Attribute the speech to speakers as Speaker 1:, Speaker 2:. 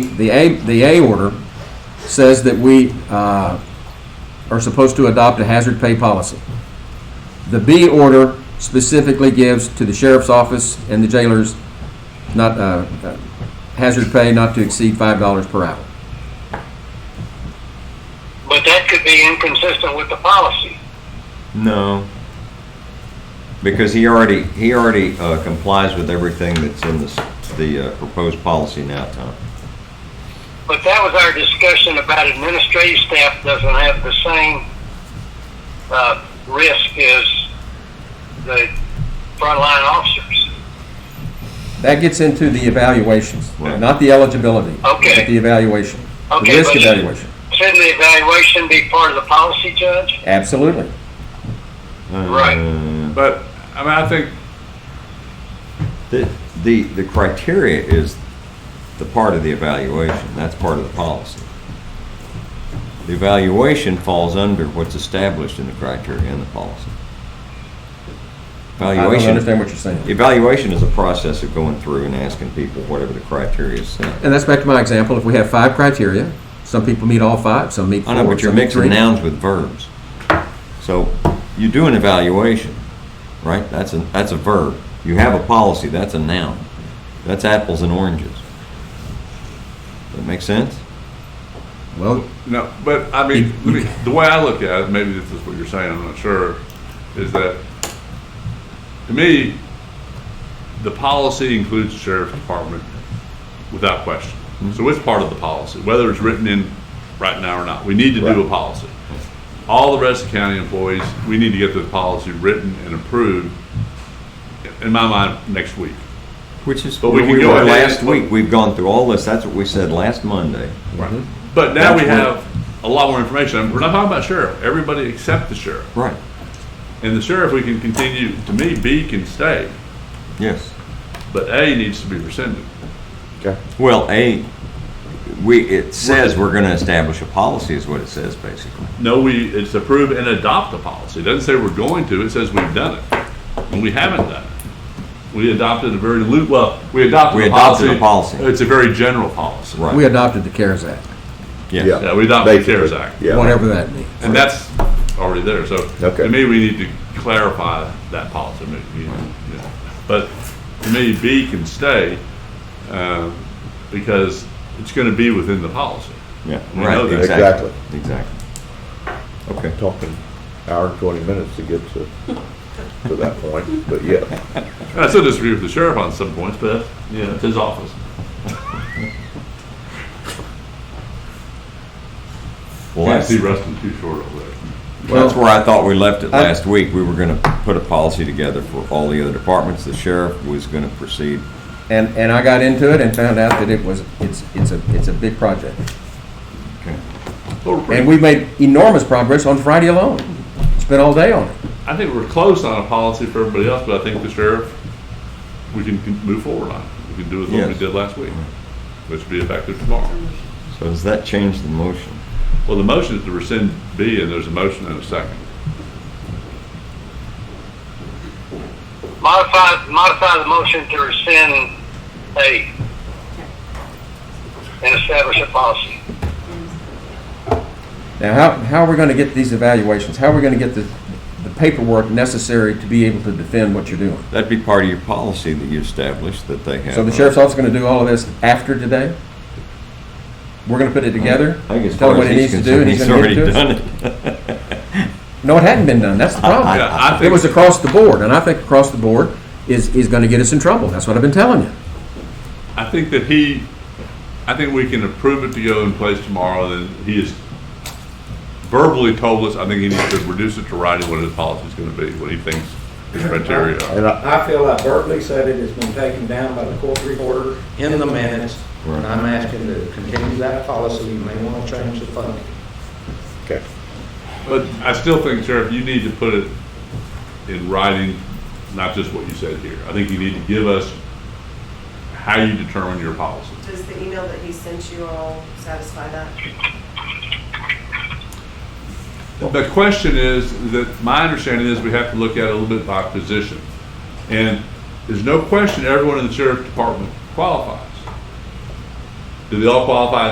Speaker 1: The A, the A order says that we uh, are supposed to adopt a hazard pay policy. The B order specifically gives to the sheriff's office and the jailers not, uh, uh, hazard pay not to exceed $5 per hour.
Speaker 2: But that could be inconsistent with the policy.
Speaker 3: No. Because he already, he already uh, complies with everything that's in this, the uh, proposed policy now, Tom.
Speaker 2: But that was our discussion about administrative staff doesn't have the same uh, risk as the frontline officers.
Speaker 1: That gets into the evaluations,
Speaker 3: Right.
Speaker 1: not the eligibility.
Speaker 2: Okay.
Speaker 1: But the evaluation, the
Speaker 2: Okay,
Speaker 1: risk
Speaker 2: but-
Speaker 1: evaluation.
Speaker 2: Shouldn't the evaluation be part of the policy, Judge?
Speaker 1: Absolutely.
Speaker 2: Right.
Speaker 3: Uh,
Speaker 4: But, I mean, I think,
Speaker 3: The, the, the criteria is the part of the evaluation, that's part of the policy. The evaluation falls under what's established in the criteria in the policy.
Speaker 1: I don't understand
Speaker 3: Evaluation,
Speaker 1: what you're saying.
Speaker 3: evaluation is a process of going through and asking people whatever the criteria is set.
Speaker 1: And that's back to my example, if we have five criteria, some people meet all five, some meet four,
Speaker 3: I know, but you're
Speaker 1: some meet
Speaker 3: mixing
Speaker 1: three.
Speaker 3: nouns with verbs. So you do an evaluation, right? That's a, that's a verb. You have a policy, that's a noun. That's apples and oranges. That make sense?
Speaker 1: Well,
Speaker 4: no, but, I mean, let me- the way I look at it, maybe this is what you're saying, I'm not sure, is that, to me, the policy includes the sheriff's department without question. So it's part of the policy, whether it's written in right now or not. We need to do a policy. All the rest of county employees, we need to get this policy written and approved, in my mind, next week.
Speaker 3: Which is
Speaker 4: But
Speaker 3: where
Speaker 4: we can
Speaker 3: we
Speaker 4: go
Speaker 3: were
Speaker 4: ahead
Speaker 3: last
Speaker 4: and-
Speaker 3: week. We've gone through all this. That's what we said last Monday.
Speaker 4: Right. But now we
Speaker 3: Mm-hmm. That's what-
Speaker 4: have a lot more information. And We're not talking about sheriff, everybody except the sheriff.
Speaker 3: Right.
Speaker 4: And the sheriff, we can continue, to me, B can stay,
Speaker 3: Yes.
Speaker 4: but A needs to be rescinded.
Speaker 3: Well, A, we, it says we're gonna establish a policy is what it says, basically.
Speaker 4: No, we, it's approve and adopt the policy. It doesn't say we're going to, it says we've done it. And we haven't done it. We adopted a very loose, well, we adopted
Speaker 3: We
Speaker 4: the policy.
Speaker 3: adopted a policy.
Speaker 4: It's a very general policy.
Speaker 3: Right.
Speaker 1: we adopted the CARES Act,
Speaker 3: Yes.
Speaker 4: Yeah, we adopted the
Speaker 5: Basically,
Speaker 4: CARES Act.
Speaker 5: Yeah.
Speaker 1: whatever that means.
Speaker 4: And that's already there, so to
Speaker 5: Okay.
Speaker 4: me, we need to clarify that policy. I mean, you- yeah. But to me, B can stay, um, because it's gonna be within the policy.
Speaker 3: Yeah,
Speaker 4: We know
Speaker 3: right,
Speaker 4: that.
Speaker 3: exactly. Exactly. Okay.
Speaker 5: Talking hour and twenty minutes to get to, to that point, but yeah.
Speaker 4: And I still disagree with the sheriff on some points, but, you know, it's his office.
Speaker 3: Well,
Speaker 4: Can't
Speaker 3: that's,
Speaker 4: see Rustin too short over there.
Speaker 3: Well, that's where I thought we left it
Speaker 1: I-
Speaker 3: last week. We were gonna put a policy together for all the other departments. The sheriff was gonna proceed.
Speaker 1: And, and I got into it and found out that it was, it's, it's a, it's a big project.
Speaker 3: Okay.
Speaker 4: But we're pretty-
Speaker 1: And we made enormous progress on Friday alone. Spent all day on it.
Speaker 4: I think we're close on a policy for everybody else, but I think the sheriff, we can can move forward on. it. We can do as what we
Speaker 3: Yes.
Speaker 4: did last week, which will be effective tomorrow.
Speaker 3: So does that change the motion?
Speaker 4: Well, the motion is to rescind B, and there's a motion and a second.
Speaker 2: Modify, modify the motion to rescind A and establish a policy.
Speaker 1: Now, how, how are we going to get these evaluations? How are we going to get the, the paperwork necessary to be able to defend what you're doing?
Speaker 3: That'd be part of your policy that you established that they have.
Speaker 1: So the
Speaker 3: uh,
Speaker 1: sheriff's office is going to do all of this after today? We're going to put it together?
Speaker 3: I think as
Speaker 1: Tell him
Speaker 3: far
Speaker 1: what
Speaker 3: as
Speaker 1: he needs
Speaker 3: he's
Speaker 1: to do and
Speaker 3: concerned,
Speaker 1: he's
Speaker 3: he's
Speaker 1: going to
Speaker 3: already
Speaker 1: get it to us?
Speaker 3: done it.
Speaker 1: No, it hadn't been done. That's the problem.
Speaker 4: Yeah, I
Speaker 1: It
Speaker 4: think-
Speaker 1: was across the board, and I think across the board is, is going to get us in trouble. That's what I've been telling you.
Speaker 4: I think that he, I think we can approve it to go in place tomorrow, and he has verbally told us, I think he needs to reduce it to writing what his policy is gonna be, what he thinks his criteria are.
Speaker 5: And I,
Speaker 6: I feel like Berkeley said it has been taken down by the court reporter in the minutes. And I'm asking to continue that policy. You may want to change the funding.
Speaker 5: okay,
Speaker 4: But I still think, Sheriff, you need to put it in writing, not just what you said here. I think you need to give us how you determine your policy.
Speaker 7: Does the email that he sent you all satisfy that?
Speaker 4: The question is, that my understanding is we have to look at it a little bit by position. And there's no question everyone in the sheriff's department qualifies. Do they all qualify